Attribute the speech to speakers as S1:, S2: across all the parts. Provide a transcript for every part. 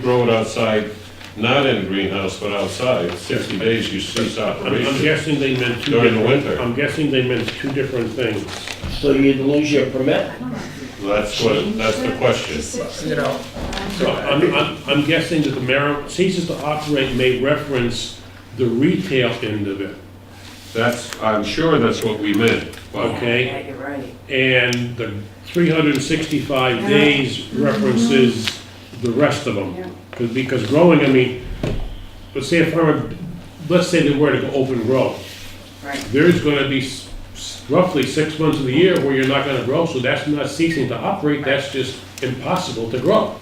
S1: grow it outside, not in a greenhouse, but outside, sixty days you cease
S2: I'm I'm
S1: operation.
S2: guessing they meant two
S1: During the
S2: different-
S1: winter.
S2: I'm guessing they meant two different things.
S3: So you'd lose your permit?
S1: That's what, that's the question.
S4: you know.
S2: So I'm, I'm, I'm guessing that the marijuana ceases to operate may reference the retail end of it,
S1: That's, I'm sure that's what we meant. but-
S2: okay?
S4: Yeah, you're right.
S2: And the three hundred and sixty-five days references the rest of
S4: Yeah.
S2: them. 'Cause- Because growing, I mean, let's say if I were, let's say they were to go open grow,
S4: Right,
S2: there's gonna be s- s- roughly six months of the year where you're not gonna grow, so that's not ceasing to operate, that's just impossible to grow.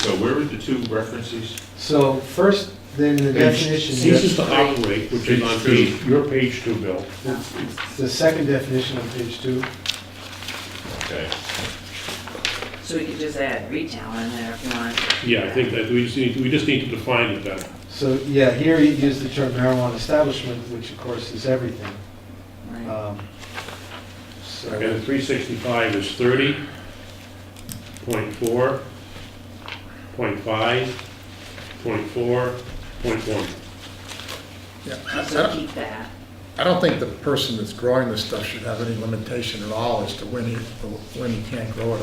S1: So where are the two references?
S5: So first, then the
S1: Page
S5: definition,
S2: Ceases to operate, which is on
S1: Page two.
S2: page, your page two, Bill.
S5: the second definition on page two.
S1: Okay.
S4: so we could just add retail in there if you want.
S2: Yeah, I think that we just need, we just need to define it better.
S5: So, yeah, here you use the term marijuana establishment, which of course is everything.
S4: Right.
S5: Um, So,
S2: And three sixty-five is thirty, point four, point five, point four, point one.
S6: Yeah, I- I
S4: So
S6: don't-
S4: keep that.
S6: I don't think the person that's growing this stuff should have any limitation at all as to when he, when he can't grow it.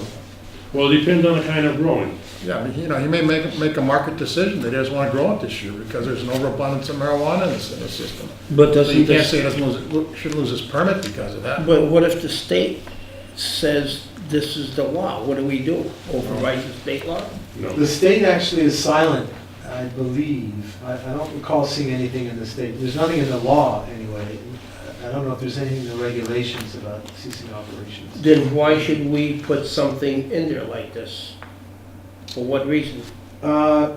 S2: Well, it depends on the kind of growing.
S6: Yeah, I mean, you know, he may make, make a market decision that he doesn't want to grow it this year because there's an overabundance of marijuana in the s- in the system.
S3: But
S6: So you
S3: doesn't
S6: can't say
S3: this,
S6: he doesn't lose, should lose his permit because of that.
S3: but what if the state says this is the law? What do we do? Override the state law?
S2: No,
S5: The state actually is silent, I believe. I, I don't recall seeing anything in the state. There's nothing in the law, anyway. I- I don't know if there's anything in the regulations about ceasing operations.
S7: Then why should we put something in there like this? For what reason?
S5: Uh,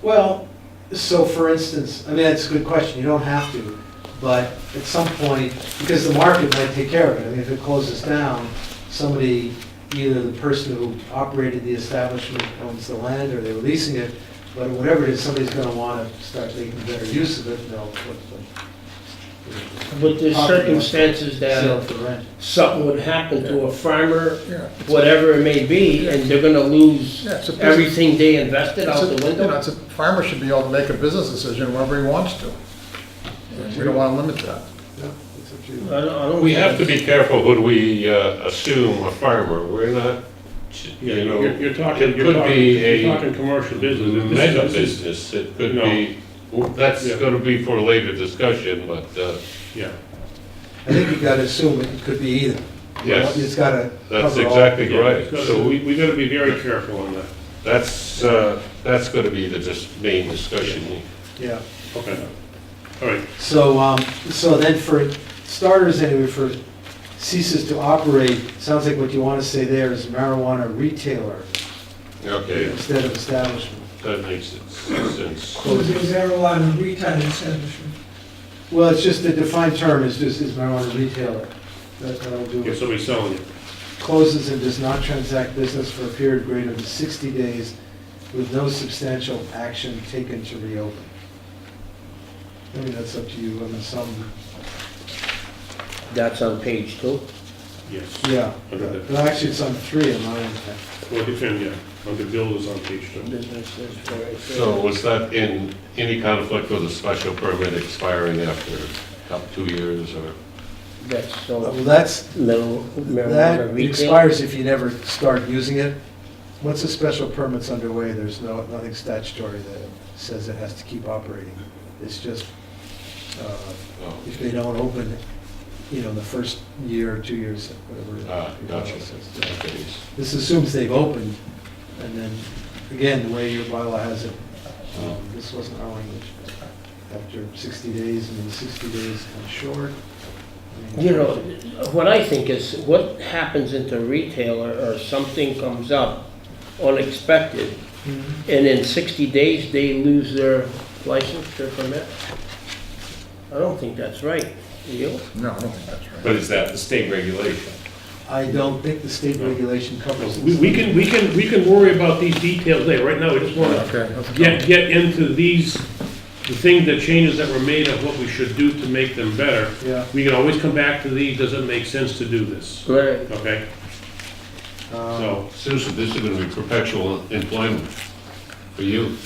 S5: Well, so for instance, I mean, that's a good question, you don't have to, but at some point, because the market might take care of it, I mean, if it closes down, somebody, either the person who operated the establishment owns the land, or they're leasing it, but whatever it is, somebody's gonna wanna start making better use of it, and they'll put the.
S7: But there's circumstances
S5: Sell
S7: that
S5: for rent.
S7: something would happen to a farmer,
S6: Yeah, it's-
S7: whatever it may be, and they're gonna lose
S6: yeah, it's a business-
S7: everything they invested
S6: it's
S7: out
S6: a-
S7: the
S6: You know,
S7: window.
S6: it's a, farmer should be able to make a business decision whenever he wants to. And we don't want to limit that.
S5: No, it's up to you.
S7: I don't, I don't.
S1: We have to be careful when we uh, assume a farmer, we're not,
S2: Yeah,
S1: you
S2: you're,
S1: know,
S2: you're talking,
S1: it
S2: you're
S1: could
S2: talking,
S1: be a
S2: you're talking commercial business. This is-
S1: mega
S2: this is-
S1: business, it could
S2: No.
S1: be, that's
S2: Yeah.
S1: gonna be for later discussion, but, uh,
S2: Yeah,
S5: I think you gotta assume it could be either.
S1: Yes.
S5: It's gotta
S1: that's
S5: cover all.
S1: exactly right.
S2: yeah, so
S1: So
S2: we, we gotta be very careful on that.
S1: that's, uh, that's gonna be the dis- main discussion.
S5: Yeah.
S2: Okay. All right,
S5: So, um, so then for starters, anyway, for ceases to operate, sounds like what you want to say there is marijuana retailer
S1: Okay,
S5: instead of establishment.
S1: that makes it sense.
S8: Closing marijuana retail establishment.
S5: Well, it's just the defined term is just is marijuana retailer. That- That'll do
S2: if
S5: it.
S2: somebody's selling it.
S5: Closes and does not transact business for a period greater than 60 days with no substantial action taken to reopen. I mean, that's up to you, I mean, some,
S7: That's on page two.
S2: Yes.
S5: yeah.
S2: Under the-
S5: Well, Actually, it's on three in my
S2: Well, it depends, yeah, on the bill is on page two.
S7: Business is for it.
S1: So was that in any conflict with a special permit expiring after about two years or?
S7: That's
S5: Well,
S7: so,
S5: that's,
S7: little marijuana
S5: That
S7: retail.
S5: expires if you never start using it. Once a special permit's underway, there's no, nothing statutory that says it has to keep operating. It's just, uh,
S1: oh,
S5: if they don't open, you know, the first year, or two years, whatever.
S1: Ah,
S5: the
S1: gotcha.
S5: bylaw says.
S1: Okay.
S5: This assumes they've opened, and then, again, the way your bylaw has it,
S1: Oh.
S5: um, this wasn't our language. After 60 days, and then 60 days comes short. I mean,
S7: You know, what I think is, what happens into retailer or something comes up unexpected,
S5: Mhm.
S7: and in 60 days, they lose their license, their permit? I don't think that's right, do you?
S6: No, I don't think that's right.
S9: But is that the state regulation?
S5: I don't think the state regulation covers
S2: We,
S5: this.
S2: we can, we can, we can worry about these details later, right now, we just wanna
S6: Okay. that's a
S2: get, get into these, the thing, the changes that were made of what we should do to make them better.
S5: Yeah,
S2: We can always come back to these, does it make sense to do this?
S7: Right.
S2: Okay,
S5: um,
S2: so.
S1: Susan, this is gonna be perpetual employment for you.